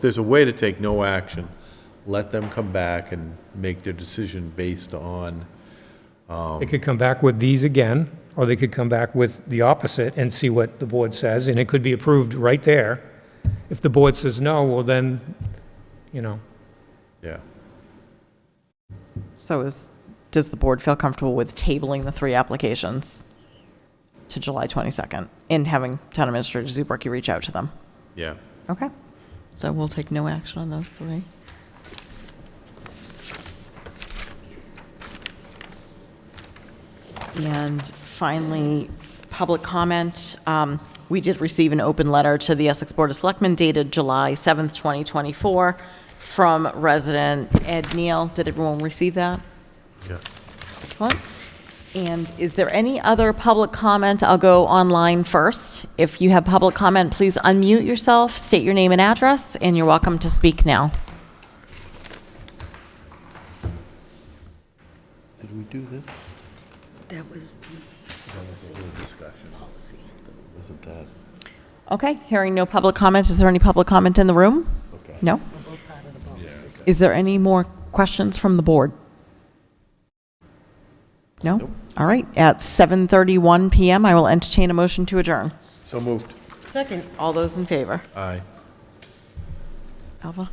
there's a way to take no action, let them come back and make their decision based on, They could come back with these again, or they could come back with the opposite and see what the board says, and it could be approved right there. If the board says no, well then, you know, yeah. So is, does the board feel comfortable with tabling the three applications to July 22nd and having Town Administrator Zubraki reach out to them? Yeah. Okay. So we'll take no action on those three. And finally, public comment. Um, We did receive an open letter to the Essex Board of Selectmen dated July 7th, 2024, from resident Ed Neal. Did everyone receive that? Yeah. Excellent. And is there any other public comment? I'll go online first. If you have public comment, please unmute yourself, state your name and address, and you're welcome to speak now. Did we do this? That was the policy. Wasn't that? Okay, hearing no public comment, is there any public comment in the room? Okay. No? Is there any more questions from the board? No? All right, at 7:31 PM, I will entertain a motion to adjourn. So moved. Second, All those in favor? Aye. Alva?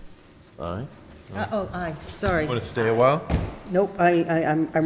Aye. Uh, oh, aye, sorry. Want to stay a while? Nope, I, I, I'm I'm